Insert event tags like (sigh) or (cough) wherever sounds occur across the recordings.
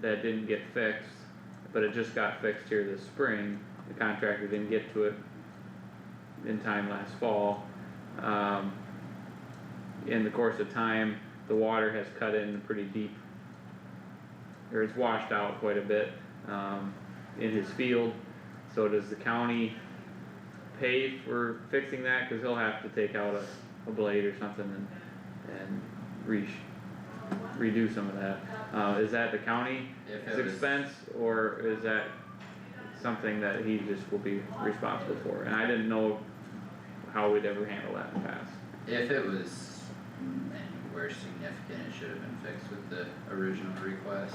that didn't get fixed, but it just got fixed here this spring, the contractor didn't get to it in time last fall. Um, in the course of time, the water has cut in pretty deep, or it's washed out quite a bit, um, in his field. So does the county pay for fixing that, cause he'll have to take out a, a blade or something and, and re- redo some of that. Uh, is that the county's If it was, expense, or is that something that he just will be responsible for? And I didn't know how we'd ever handle that in the past. if it was anywhere significant, it should have been fixed with the original request,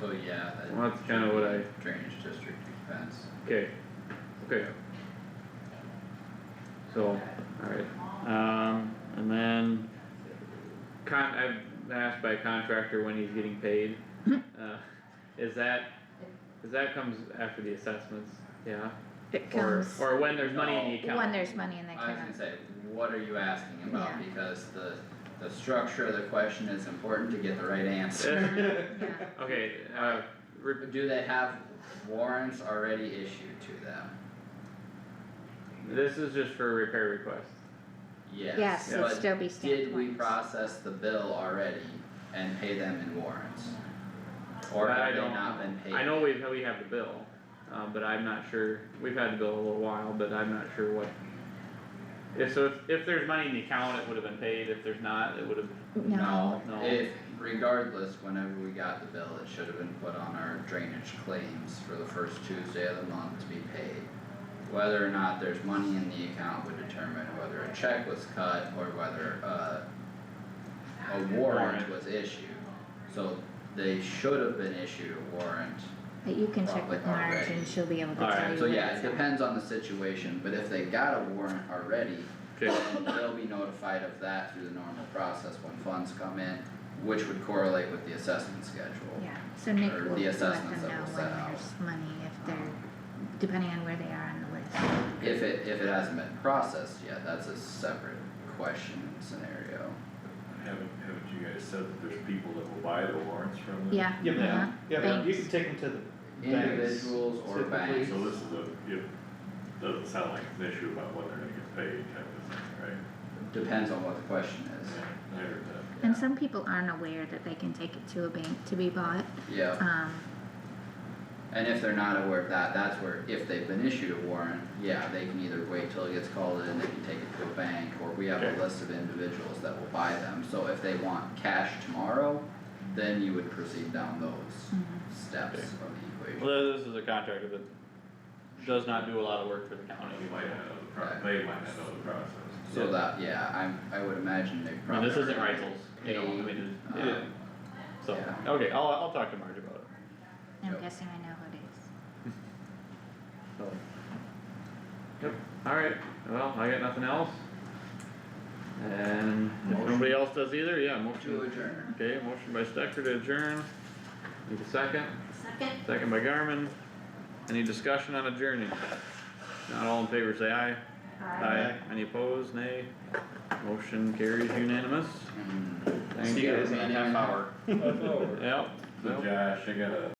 so yeah, that. Well, that's kinda should what be Drainage district expense. Okay, okay. So, alright, um, and then con, I've been asked by a contractor when he's getting (laughs) paid. Uh, Is that, is that comes after the assessments, yeah? It Or, comes or when there's money in the account? when there's money in the I was gonna account. say, what are you asking about, Yeah. because the, the structure of the question is important to get the right (laughs) answer. Yeah. Okay, uh, re- Do they have warrants already issued to them? this is just for repair request. Yes. Yes, it'd it'd But still be did stamped we warrants. process the bill already and pay them in warrants? Or That I have they don't not been paid? I know we've, we have the bill, uh, but I'm not sure, we've had the bill a little while, but I'm not sure what. If, so if, if there's money in the account, it would have been paid, if there's not, it would have, No, No. if regardless, whenever we got the bill, it should have been put on our drainage claims for the first Tuesday of the month to be paid. Whether or not there's money in the account would determine whether a check was cut or whether uh a warrant Warrant. was issued. So they should have been issued a warrant But you can check Probably with Marge already. and she'll be able to Alright, tell you So when yeah, it it's out. depends on the situation, but if they got a warrant already, okay, then they'll be notified of that through the normal process when funds come in, which would correlate with the assessment schedule. Yeah, so Nick or will the let assessments that them know we'll when set out. there's money if they're, depending on where they are on the list. If it, if it hasn't been processed yet, that's a separate question and scenario. Haven't, haven't you guys said that there's people that will buy the warrants from them? Yeah, Yeah, uh-huh. yeah, you Banks. can take them to the, Banks, Individuals or typically. banks, So this is a, it doesn't sound like an issue about what they're gonna get paid type of thing, depends on what the question is. right? I heard that. And some people aren't aware that they can take it to a bank to be bought, Yeah, um, and if they're not aware of that, that's where, if they've been issued a warrant, yeah, they can either wait till it gets called in, they can take it to a bank, or we have a Okay. list of individuals that will buy them. So if they want cash tomorrow, then you would proceed down those mhm. steps Okay. of the equation. well, this is a contractor that does not do a lot of work for the county. Uh, You might not know the pro, they might not know the process. So that, yeah, I'm, I would imagine they I mean, probably. this isn't already, rifles, you know, I mean, um, it- so, yeah. okay, I'll, I'll talk to Marge about it, I'm Yep. guessing I know who it so. Yep, alright, well, I got nothing else. And if Motion. nobody else does either, yeah, motion. To adjourn. Okay, motion by Stecker to adjourn. Need a second? Second. Second by Garmin. Any discussion on adjourning? Not all in favor, say aye. Aye. Any opposed, nay? Motion carries unanimous. Mm. Thank Yeah, you. it's a half hour. Yep. So Yep. Josh, I got a